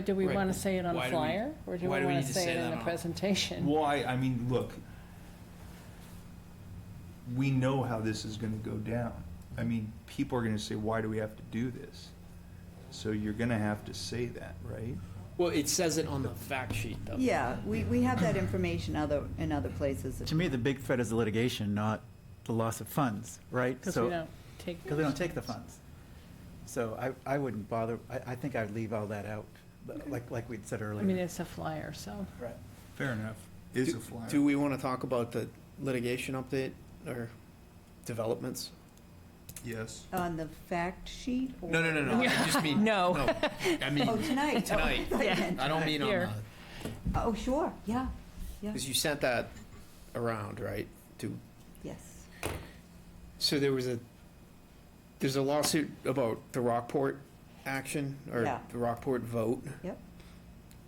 Do we Right, want to but say it on why a do we- flyer, or do we why do we want need to to say say it that in on the a- presentation? Why, I mean, look, we know how this is gonna go down. I mean, people are gonna say, why do we have to do this? So you're gonna have to say that, right? Well, it says it on the fact sheet, though. Yeah, we, we have that information other, in other places. To me, the big threat is the litigation, not the loss of funds, right? Because So- we don't take. Because we don't take the funds. So I, I wouldn't bother, I, I think I'd leave all that out, but like, like we'd said Mm-hmm. I mean, earlier. it's a flyer, so. Right. Fair enough. Is a flyer. Do we want to talk about the litigation update or developments? Yes. On the fact sheet? or- No, no, no, no. I just mean. No. I mean, Oh, tonight. Oh, I Tonight. thought you Yeah. meant- I don't mean on the, Here. Oh, sure, yeah, yeah, because you sent that around, right? To, yes. so there was a, there's a lawsuit about the Rockport action or Yeah. the Rockport vote. Yep.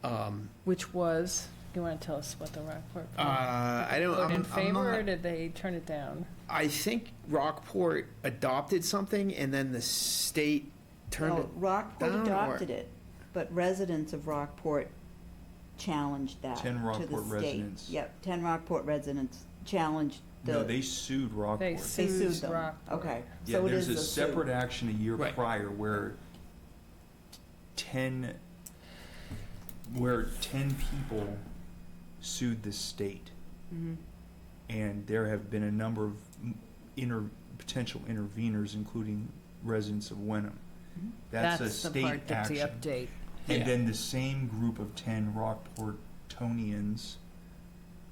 Um, Which was, you want to tell us what the Rockport. uh, I don't, voted I'm, Hmm. in I'm favor, not. or did they turn it down? I think Rockport adopted something and then the state turned Oh. No, it. Rockport down or- adopted it, but residents of Rockport challenged that to the 10 Rockport state. residents. Yep, ten Rockport residents challenged No, the, they sued Rockport. They they sued sued them. Rockport. Okay, Yeah, so it there's is a a suit. separate action a year Right. prior where ten, where ten people sued the state. Mhm. And there have been a number of m- inter, potential interveners, including residents of Wenham. Mhm. That's a the state part Mm-hmm. that's the action. update. And Yeah. then the same group of ten Rockportonians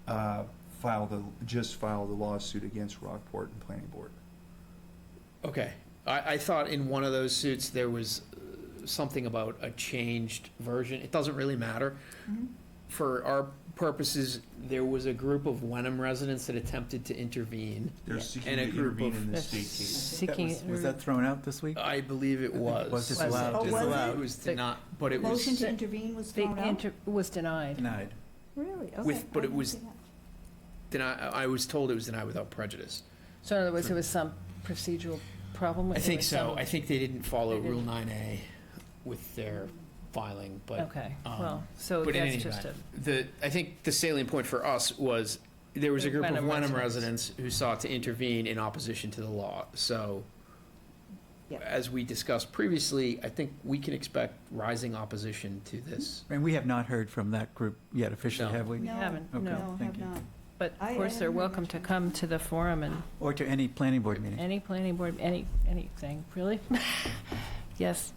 uh, filed a, just filed a lawsuit against Rockport and Planning Board. Okay. I, I thought in one of those suits, there was uh, something about a changed version. It doesn't really matter. Mhm. For our purposes, there was a group of Wenham residents that attempted to intervene. They're Yeah. seeking And to a group intervene of- in the That's state case. That Seeking. was- Was that thrown out this week? I believe it think it was. was disallowed. Oh, was Disallowed. it? It was The- not, but it Motion was, to intervene was The thrown out? inter, was denied. Denied. Really? With- Okay, but it I didn't was- see that. denied, I was told it was denied without prejudice. So in other words, it was some procedural problem with. I it think or so. some- I think they didn't follow They Rule didn't. nine A with their filing, but. Okay, um, well, so but in that's any just a, the, I think the salient point for us was, there was a group of Wenham Wenham residents. residents who sought to intervene in opposition to the law, so. Yeah. As we discussed previously, I think we can expect rising opposition to this. And we have not heard from that group yet officially, No. have we? we No, haven't, okay. no. No, have thank you. not. But I- of I course, they're haven't heard welcome to much. come to the forum and Or to any planning board meeting? Any planning board, any, anything, really? Yes.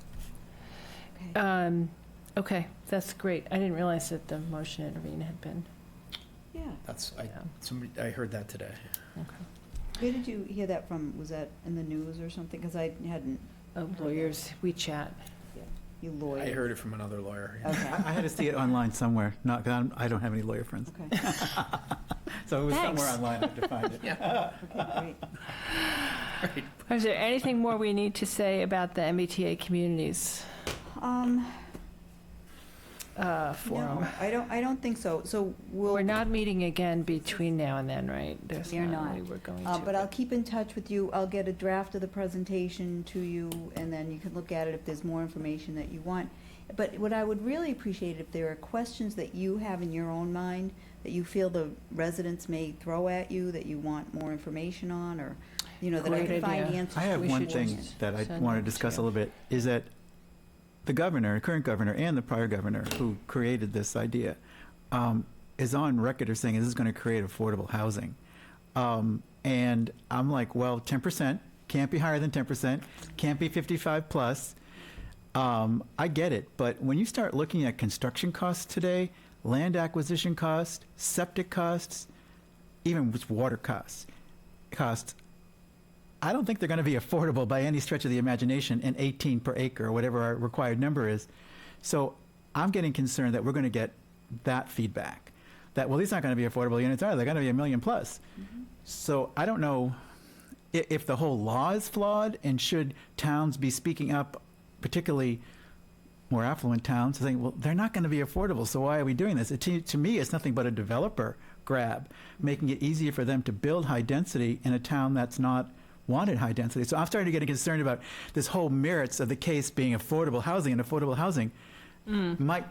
Okay. Um, Okay, that's great. I didn't realize that the motion intervene had been. um, Yeah. That's, I, yeah, somebody, I heard that today. okay. Where did you hear that from? Was that in the news or something? Because I hadn't, Oh, Lawyers, we chat. you lawyer. I heard it from another lawyer. yeah. Okay, I, I had to see it online somewhere, not, 'cause I'm- I don't have any lawyer friends. okay, So it was somewhere Thanks. online, I had to find it. okay, great. Is there anything more we need to say about the MBTA communities Um, uh, no, forum? I don't, I don't think so. So we'll, We're not meeting again between now and then, right? There's We are not not. really We're going uh, to. but I'll keep in touch with you. I'll get a draft of the presentation to you and then you can look at it if there's more information that you want. But what I would really appreciate if there are questions that you have in your own mind that you feel the residents may throw at you, that you want more information on or, you know, that I Great can find idea. answers. I have We one should thing just that I send want it to to discuss a you. little bit, is that the governor, current governor, and the prior governor who created this idea, um, is on record as saying this is going to create affordable housing. Um, and I'm like, well, 10%, can't be higher than 10%, can't be 55 plus. Um, I get it, but when you start looking at construction costs today, land acquisition costs, septic costs, even with water costs, costs, I don't think they're going to be affordable by any stretch of the imagination in 18 per acre or whatever our required number is. So I'm getting concerned that we're going to get that feedback that, well, these aren't going to be affordable units, are they? They're going to be a million plus. So I don't know i- if the whole law is flawed and should towns be speaking up, particularly more affluent towns, saying, well, they're not going to be affordable, so why are we doing this? It, to, to me, it's nothing but a developer grab, making it easier for them to build high density in a town that's not wanted high density. So I'm starting to get concerned about this whole merits of the case being affordable housing and affordable housing might